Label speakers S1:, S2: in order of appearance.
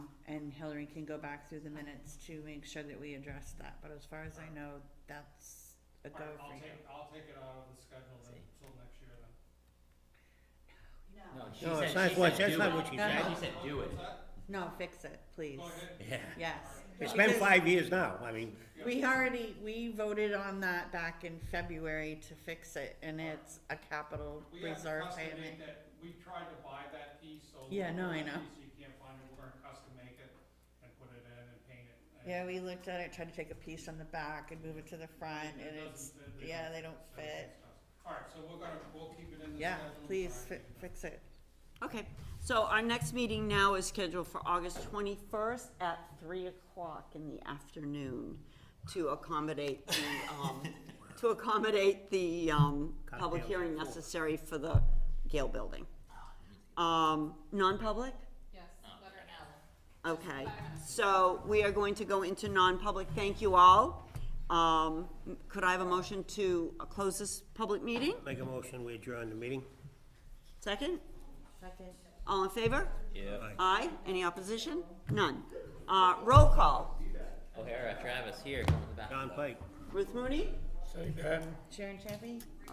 S1: Hillary can go back through the minutes to make sure that we address that, but as far as I know, that's a go
S2: Alright,
S1: for
S2: I'll
S1: you.
S2: take, I'll take it out of the schedule then, till next year then.
S3: No, she
S4: No,
S3: said,
S4: it's not
S3: she
S4: what-
S3: said
S4: that's
S3: do
S4: not
S3: it.
S4: what she
S1: said.
S3: She said do it.
S2: What's that?
S1: No, fix it, please.
S2: Go ahead.
S4: Yeah,
S1: Yes.
S4: it's been
S1: Because-
S4: five years now, I mean,
S1: We already, we voted on that back in February to fix it, and it's a capital
S2: We have to
S1: reserve
S2: custom
S1: payment.
S2: make that, we tried to buy that piece, so.
S1: Yeah, no, I
S2: that
S1: know.
S2: piece You can't find it, we're gonna custom make it and put it in and paint it. and-
S1: Yeah, we looked at it, tried to take a piece on the back and move it to the front,
S2: It
S1: and
S2: doesn't
S1: it's,
S2: fit,
S1: yeah, they don't
S2: so
S1: fit.
S2: it's custom. Alright, so we're gonna, we'll keep it in the schedule.
S1: Yeah, please
S2: Alright,
S1: fi- fix it.
S5: Okay, so our next meeting now is scheduled for August twenty-first at three o'clock in the afternoon to accommodate the, um, to accommodate the, um, public
S4: Cocktails
S5: hearing
S4: at four.
S5: necessary for the Gale Building. Um, non-public?
S6: Yes, letter L.
S5: Okay, so we are going to go into non-public, thank you all. Um, could I have a motion to uh, close this public meeting?
S4: make a motion, we adjourn the meeting.
S5: Second? Second. All in favor?
S3: Yeah.
S5: Aye. Any opposition? None. Uh, roll call.
S3: O'Hara, Travis, here, come to the back.
S4: John Pike.
S5: Ruth Mooney?
S1: Sharon Chappie?